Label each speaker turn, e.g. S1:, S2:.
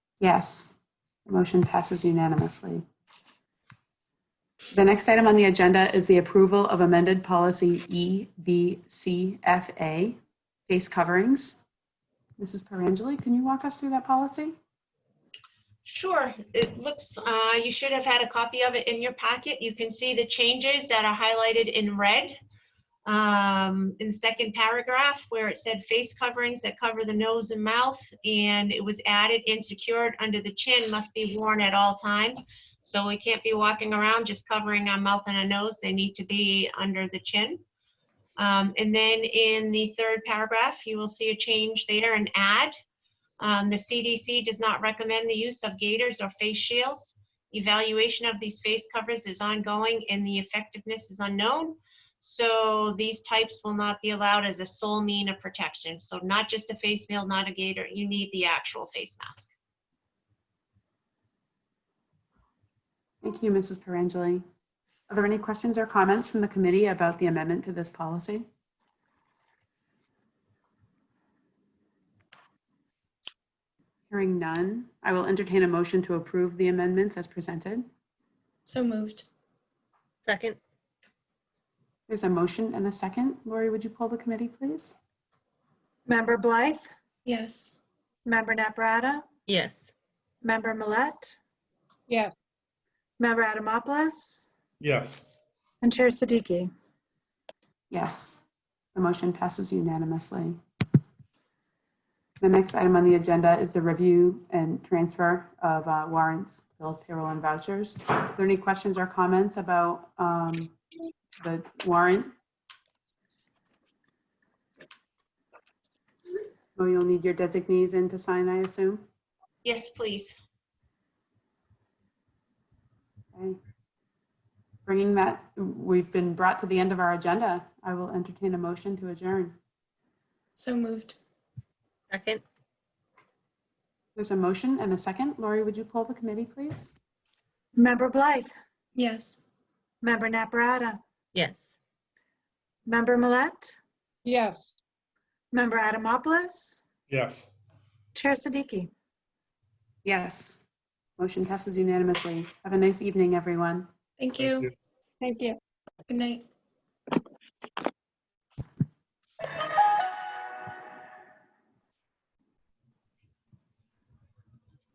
S1: Yes. The motion passes unanimously. The next item on the agenda is the approval of amended policy E, EBCFA, face coverings. Mrs. Perangeli, can you walk us through that policy?
S2: Sure, it looks, uh, you should have had a copy of it in your packet. You can see the changes that are highlighted in red. um, In the second paragraph where it said face coverings that cover the nose and mouth, and it was added and secured under the chin must be worn at all times. So we can't be walking around just covering our mouth and our nose. They need to be under the chin. Um, And then in the third paragraph, you will see a change there and add. Um, the CDC does not recommend the use of gaiters or face shields. Evaluation of these face covers is ongoing and the effectiveness is unknown. So these types will not be allowed as a sole mean of protection. So not just a face shield, not a gaiter, you need the actual face mask.
S1: Thank you, Mrs. Perangeli. Are there any questions or comments from the committee about the amendment to this policy? Hearing none, I will entertain a motion to approve the amendments as presented.
S3: So moved.
S4: Second,
S1: There's a motion and a second. Lori, would you pull the committee, please?
S5: Member Blythe?
S3: Yes.
S5: Member Naprata?
S4: yes.
S5: Member Millet?
S6: Yes.
S5: Member Adamopoulos?
S7: yes,
S5: And Chair Siddiqui?
S1: Yes, the motion passes unanimously. The next item on the agenda is the review and transfer of uh, warrants, bills, payroll, and vouchers. Are there any questions or comments about um, the warrant? Oh, you'll need your designees in to sign, I assume?
S2: Yes, please.
S1: Okay. Bringing that, we've been brought to the end of our agenda. I will entertain a motion to adjourn.
S3: So moved.
S4: Second,
S1: There's a motion and a second. Lori, would you pull the committee, please?
S5: Member Blythe?
S3: Yes.
S5: Member Naprata?
S4: yes.
S5: Member Millet?
S6: yes.
S5: Member Adamopoulos?
S7: yes.
S5: Chair Siddiqui?
S1: Yes. Motion passes unanimously. Have a nice evening, everyone.
S3: Thank
S7: Thank
S3: you.
S7: you.
S6: Thank you.
S3: Good night.